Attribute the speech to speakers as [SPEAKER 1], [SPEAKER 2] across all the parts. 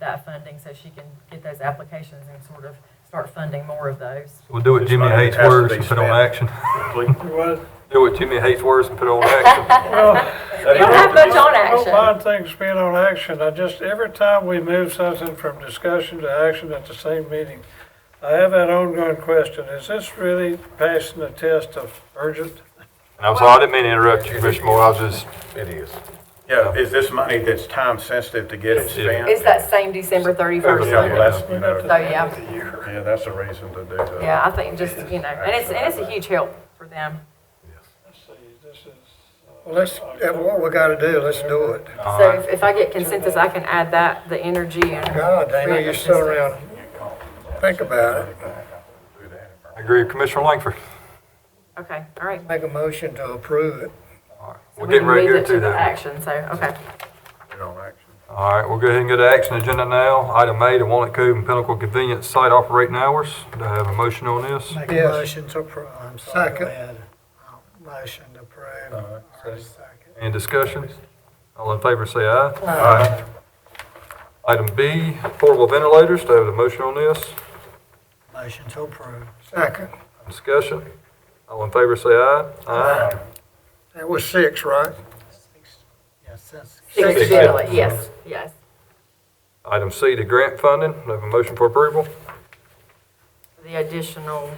[SPEAKER 1] that funding so she can get those applications and sort of start funding more of those.
[SPEAKER 2] We'll do what
[SPEAKER 3] It's
[SPEAKER 2] Jimmy
[SPEAKER 3] not- it
[SPEAKER 2] hates
[SPEAKER 3] has to
[SPEAKER 2] words
[SPEAKER 3] be
[SPEAKER 2] and put on
[SPEAKER 3] spent.
[SPEAKER 2] action.
[SPEAKER 3] Complete.
[SPEAKER 2] Do what Jimmy hates words and put on action.
[SPEAKER 1] We don't have much on
[SPEAKER 4] oh, I don't
[SPEAKER 1] action.
[SPEAKER 4] mind things being on action, I just, every time we move something from discussion to action at the same meeting, I have that ongoing question, is this really passing the test of urgent?
[SPEAKER 2] And I'm sorry, I didn't mean to interrupt you, Commissioner Moore, I was just,
[SPEAKER 5] It is.
[SPEAKER 3] Yeah, is this money that's time sensitive to get it spent?
[SPEAKER 1] It's that same December thirty-first.
[SPEAKER 3] Yeah, well,
[SPEAKER 1] So,
[SPEAKER 3] that's, you know,
[SPEAKER 1] Oh, yeah,
[SPEAKER 3] yeah, that's a reason to do that.
[SPEAKER 1] yeah, I think just, you know, and it's, and it's a huge help for them.
[SPEAKER 4] uh,
[SPEAKER 6] Well, let's, if what we gotta do, let's do it.
[SPEAKER 2] uh,
[SPEAKER 1] So if- if I get consensus, I can add that, the energy and,
[SPEAKER 6] God, Dana, you're still around. Think about it.
[SPEAKER 2] I agree with Commissioner Langford.
[SPEAKER 1] okay, all right.
[SPEAKER 6] Make a motion to approve it.
[SPEAKER 2] We're getting ready to
[SPEAKER 1] Move
[SPEAKER 2] go
[SPEAKER 1] it to
[SPEAKER 2] to
[SPEAKER 1] the
[SPEAKER 2] that.
[SPEAKER 1] action, so, okay.
[SPEAKER 3] You know, action.
[SPEAKER 2] All right, we'll go ahead and go to action agenda now. Item A, the Walnut Cove and Pinnacle Convenience Site Operating Hours. Do I have a motion on this?
[SPEAKER 7] Make a
[SPEAKER 6] Yes.
[SPEAKER 7] motion to approve, I'm sorry, go
[SPEAKER 6] Second.
[SPEAKER 7] ahead. Motion to approve. Second.
[SPEAKER 2] Any discussion? All in favor, say aye. Aye. Item B, portable ventilators. Do I have a motion on this?
[SPEAKER 7] Motion to approve.
[SPEAKER 6] Second.
[SPEAKER 2] Discussion? All in favor, say aye. Aye.
[SPEAKER 6] That was six, right?
[SPEAKER 7] Yes, that's.
[SPEAKER 1] Six
[SPEAKER 2] Six.
[SPEAKER 1] ventilators, yes, yes.
[SPEAKER 2] Item C, the grant funding. Do I have a motion for approval?
[SPEAKER 1] The additional,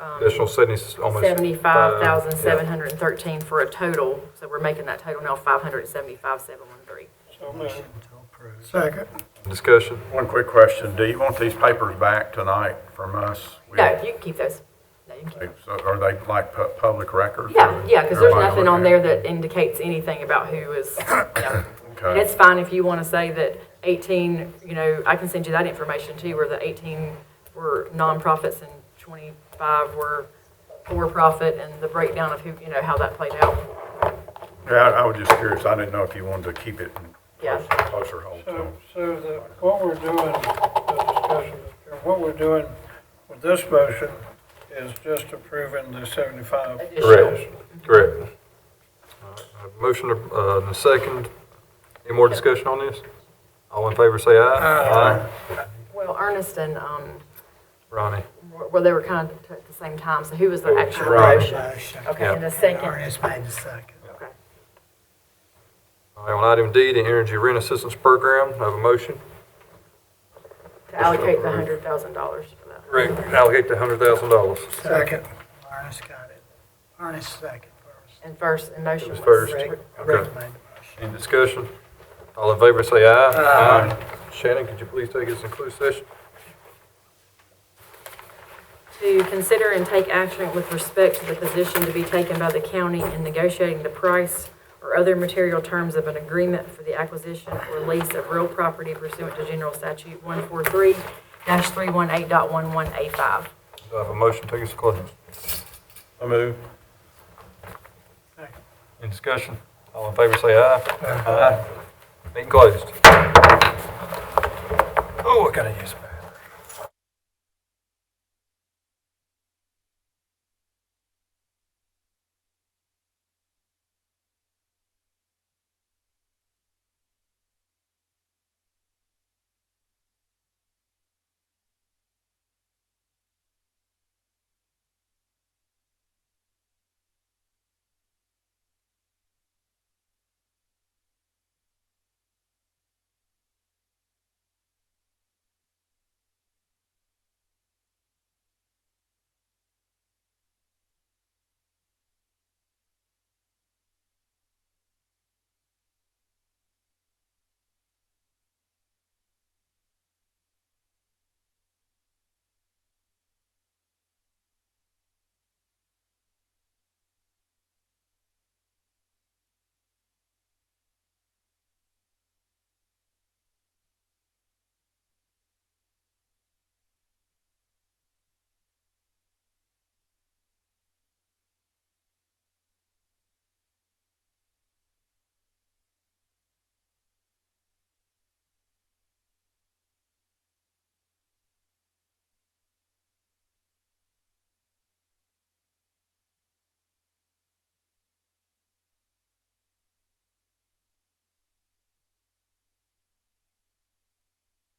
[SPEAKER 1] um,
[SPEAKER 2] Additional seventy, almost.
[SPEAKER 1] seventy-five thousand,
[SPEAKER 2] Yeah.
[SPEAKER 1] seven hundred and thirteen for a total, so we're making that total now five hundred and seventy-five, seven one three.
[SPEAKER 4] So moved.
[SPEAKER 7] Motion to approve.
[SPEAKER 6] Second.
[SPEAKER 2] uh, Discussion?
[SPEAKER 3] One quick question, do you want these papers back tonight from us? We-
[SPEAKER 1] No, you can keep those. No, you can keep.
[SPEAKER 3] So Are they like pu- public records?
[SPEAKER 1] Yeah,
[SPEAKER 3] or
[SPEAKER 1] yeah, because there's
[SPEAKER 3] everybody
[SPEAKER 1] nothing on
[SPEAKER 3] look
[SPEAKER 1] there that indicates anything about who is, you know.
[SPEAKER 3] at
[SPEAKER 1] And
[SPEAKER 3] it?
[SPEAKER 1] it's fine if you want to say that eighteen, you know, I can send you that information too, where the eighteen were nonprofits and twenty-five were for-profit and the breakdown of who, you know, how that played out.
[SPEAKER 3] Okay. Yeah, I I was just curious, I didn't know if you wanted to keep it in
[SPEAKER 1] Yeah.
[SPEAKER 3] closer- closer hold to.
[SPEAKER 4] So, so the, what we're doing, the discussion, what we're doing with this motion is just approving the seventy-five.
[SPEAKER 2] Correct. Correct. Motion, uh, and a second. Any more discussion on this? All in favor, say aye.
[SPEAKER 1] Well, Ernest and, um,
[SPEAKER 2] Ronnie?
[SPEAKER 1] were- well, they were kind of at the same time, so who was the actual
[SPEAKER 2] Right.
[SPEAKER 1] motion?
[SPEAKER 7] Motion.
[SPEAKER 1] Okay, and the second,
[SPEAKER 7] Ernest made the second.
[SPEAKER 1] okay.
[SPEAKER 2] All right, on item D, the Energy Rent Assistance Program, I have a motion.
[SPEAKER 1] to allocate the hundred thousand dollars for that.
[SPEAKER 2] Correct. Allocate the hundred thousand dollars.
[SPEAKER 6] Second.
[SPEAKER 7] Ernest got it. Ernest second. Ernest.
[SPEAKER 1] And first, and motion
[SPEAKER 2] It
[SPEAKER 1] was.
[SPEAKER 2] was first.
[SPEAKER 7] Rick,
[SPEAKER 2] Okay.
[SPEAKER 7] Rick made the motion.
[SPEAKER 2] Any discussion? All in favor, say aye. Aye. Shannon, could you please take us in closed session?
[SPEAKER 1] To consider and take action with respect to the position to be taken by the county in negotiating the price or other material terms of an agreement for the acquisition or lease of real property pursuant to General Statute one four three three one eight dot one one A five.
[SPEAKER 2] Do I have a motion, take us to closed?
[SPEAKER 3] I move.
[SPEAKER 2] Any discussion? All in favor, say aye. Aye. Meeting closed. Oh, I gotta use my.